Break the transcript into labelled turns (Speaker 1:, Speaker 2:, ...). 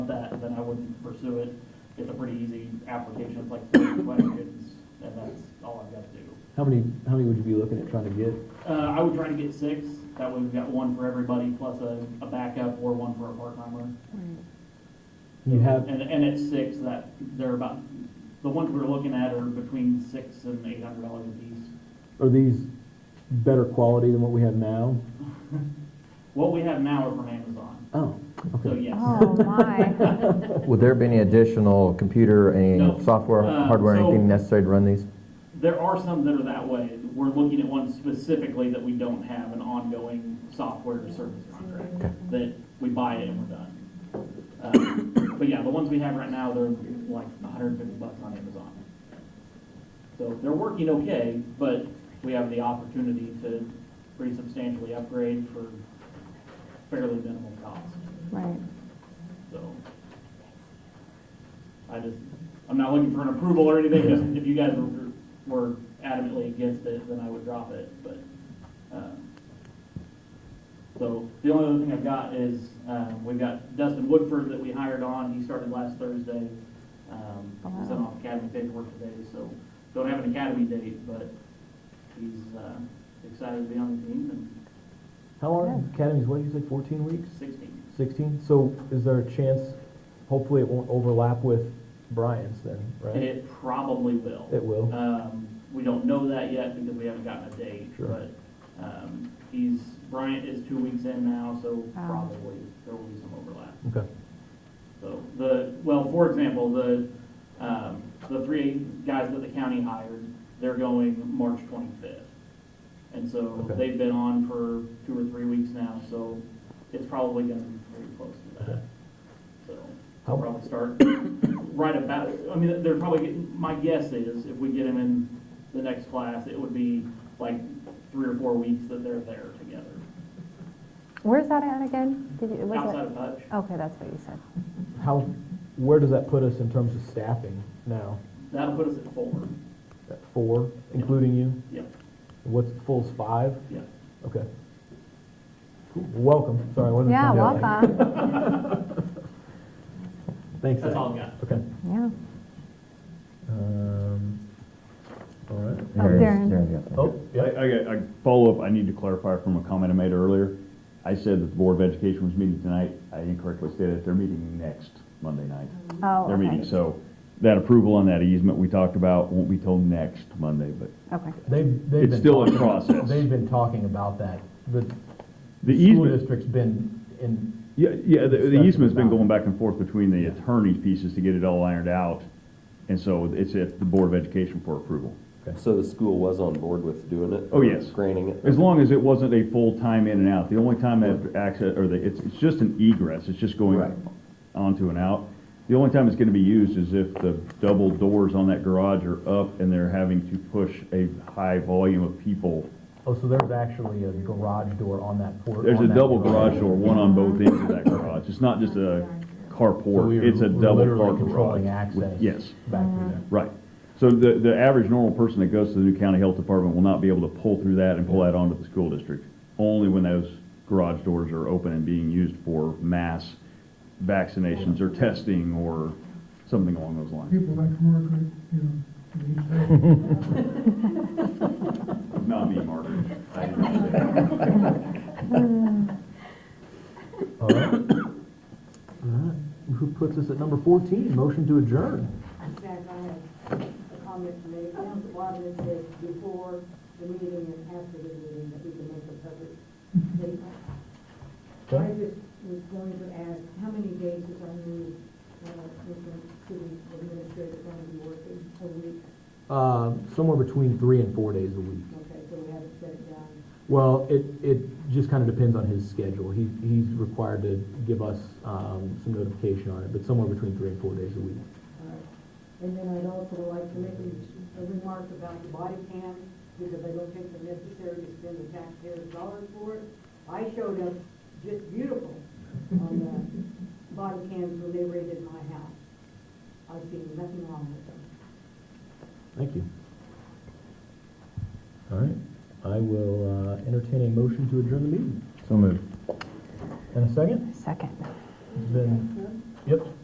Speaker 1: then I wouldn't pursue it. It's a pretty easy application, it's like thirty questions, and that's all I've got to do.
Speaker 2: How many, how many would you be looking at trying to get?
Speaker 1: Uh, I would try to get six, that way we've got one for everybody, plus a, a backup or one for a part-timer.
Speaker 2: You
Speaker 1: Mm-hmm.
Speaker 2: have,
Speaker 1: And, and at six, that, they're about, the ones we're looking at are between six and eight hundred dollars a piece.
Speaker 2: are these better quality than what we have now?
Speaker 1: What we have now are from Amazon,
Speaker 2: Oh,
Speaker 1: so
Speaker 2: okay.
Speaker 1: yes.
Speaker 3: Oh, my.
Speaker 4: Would there be any additional computer,
Speaker 1: No.
Speaker 4: any software,
Speaker 1: Uh,
Speaker 4: hardware,
Speaker 1: so-
Speaker 4: anything necessary to run these?
Speaker 1: There are some that are that way. We're looking at one specifically that we don't have an ongoing software or service contract.
Speaker 4: Okay.
Speaker 1: That we buy it and we're done. Um, But yeah, the ones we have right now, they're like hundred and fifty bucks on Amazon. So they're working okay, but we have the opportunity to pretty substantially upgrade for fairly minimal cost,
Speaker 3: Right.
Speaker 1: so. I just, I'm not looking for an approval or anything, just if you guys were were adamantly against it, then I would drop it, but, um, so, the only other thing I've got is, um, we've got Dustin Woodford that we hired on, he started last Thursday. Um, he sent off academy paperwork today, so, don't have an academy date, but he's, uh, excited to be on the team
Speaker 2: How long, Academy's what, you say fourteen weeks,
Speaker 1: and sixteen.
Speaker 2: sixteen? So is there a chance, hopefully it won't overlap with Brian's then, right?
Speaker 1: It probably will.
Speaker 2: It will.
Speaker 1: Um, we don't know that yet because we haven't gotten a date,
Speaker 2: Sure.
Speaker 1: but, um, he's, Bryant is two weeks in now, so
Speaker 3: Ah.
Speaker 1: probably there will be some overlap.
Speaker 2: Okay.
Speaker 1: So the, well, for example, the, um, the three guys that the county hired, they're going March twenty-fifth. And so
Speaker 2: Okay.
Speaker 1: they've been on for two or three weeks now, so it's probably gonna be pretty close to that. So
Speaker 2: How-
Speaker 1: they'll probably start right about, I mean, they're probably getting, my guess is if we get them in the next class, it would be like three or four weeks that they're there together.
Speaker 3: Where's that at again? Did you, was
Speaker 1: Outside
Speaker 3: it?
Speaker 1: of touch,
Speaker 3: Okay, that's what you said.
Speaker 2: How, where does that put us in terms of staffing now?
Speaker 1: that'll put us at four.
Speaker 2: At four, including you?
Speaker 1: Yep,
Speaker 2: What's, full's five?
Speaker 1: yep.
Speaker 2: Okay. Cool. Welcome, sorry, I wasn't.
Speaker 3: Yeah,
Speaker 2: trying to-
Speaker 3: welcome.
Speaker 2: Thanks.
Speaker 1: That's
Speaker 2: Zach.
Speaker 1: all I've got.
Speaker 2: Okay.
Speaker 3: Yeah.
Speaker 2: Um, all right.
Speaker 3: Oh,
Speaker 4: Darren's-
Speaker 3: Darren.
Speaker 4: Darren's got that.
Speaker 2: Oh, yeah,
Speaker 5: I, I, got- I follow up, I need to clarify from a comment I made earlier. I said that the Board of Education was meeting tonight, I incorrectly stated, they're meeting next Monday night.
Speaker 3: Oh,
Speaker 5: They're meeting,
Speaker 3: okay.
Speaker 5: so that approval on that easement we talked about won't be till next Monday, but
Speaker 3: Okay.
Speaker 2: they've, they've
Speaker 5: it's
Speaker 2: been
Speaker 5: still in
Speaker 2: talking-
Speaker 5: process.
Speaker 2: They've been talking about that. The
Speaker 5: The
Speaker 2: school
Speaker 5: easement,
Speaker 2: district's been in,
Speaker 5: yeah, yeah, the- the
Speaker 2: discussion
Speaker 5: easement's been
Speaker 2: about it.
Speaker 5: going back and forth between the attorney's pieces to get it all ironed out, and so it's at the Board of Education for approval.
Speaker 6: So the school was on board with doing it?
Speaker 5: Oh, yes.
Speaker 6: Granting it?
Speaker 5: As long as it wasn't a full time in and out, the only time that access, or the, it's, it's just an egress, it's just going
Speaker 6: Right.
Speaker 5: onto and out. The only time it's gonna be used is if the double doors on that garage are up and they're having to push a high volume of people.
Speaker 2: oh, so there's actually a garage door on that port.
Speaker 5: There's
Speaker 2: on
Speaker 5: a
Speaker 2: that
Speaker 5: double garage door, one on both ends of that garage, it's not just a
Speaker 2: So we
Speaker 5: carport,
Speaker 2: were-
Speaker 5: it's a
Speaker 2: we were
Speaker 5: double
Speaker 2: literally
Speaker 5: car garage.
Speaker 2: controlling
Speaker 5: with-
Speaker 2: access.
Speaker 5: Yes.
Speaker 2: Back through there.
Speaker 5: Right. So the, the average normal person that goes to the new county health department will not be able to pull through that and pull that onto the school district. Only when those garage doors are open and being used for mass vaccinations or testing or something along those lines.
Speaker 7: people that come work, like, you know, need to
Speaker 5: Not me, Margaret. I did not say that.
Speaker 2: All right. All right. Who puts us at number fourteen? Motion to adjourn.
Speaker 8: Jack, I have a comment to make. Council Waterman said before the meeting and after the meeting that we can make a public statement. So I just was going to ask, how many days is our new, uh, Mr. City Administrator going to be working a week?
Speaker 2: Uh, somewhere between three and four days a week.
Speaker 8: Okay, so we haven't set it down.
Speaker 2: Well, it, it just kind of depends on his schedule. He, he's required to give us, um, some notification on it, but somewhere between three and four days a week.
Speaker 8: All right. And then I'd also like to make a a remark about the body cam, because I don't think they're necessary to spend the taxpayers' dollars for it. I showed up just beautiful on the body cams when they raided my house. I've seen nothing wrong with them.
Speaker 2: Thank you. All right, I will, uh, entertain a motion to adjourn the meeting.
Speaker 5: So moved.
Speaker 2: In a second?
Speaker 3: Second.
Speaker 2: Then, yep.